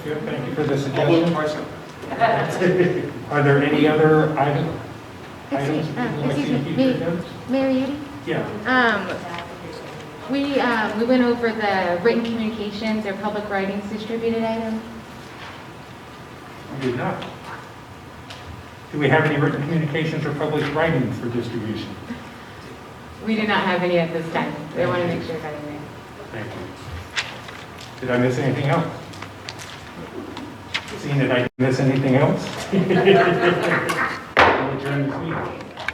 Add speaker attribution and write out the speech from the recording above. Speaker 1: Yeah, Thank you for the
Speaker 2: I'll vote
Speaker 1: suggestion.
Speaker 2: twice.
Speaker 1: Are there any other item- items?
Speaker 3: Excuse
Speaker 1: you'd
Speaker 3: um,
Speaker 1: like to
Speaker 3: excuse me,
Speaker 1: see
Speaker 3: me-
Speaker 1: added?
Speaker 3: Mayor Yudi?
Speaker 1: Yeah,
Speaker 3: Um, we, um, we went over the written communications or public writings distributed item.
Speaker 1: we did not. Do we have any written communications or published writing for distribution?
Speaker 3: We do not have any at this time. I want to make sure that in
Speaker 1: Thank you. Did I miss anything else? Seeing that I didn't miss anything else? We'll adjourn this meeting.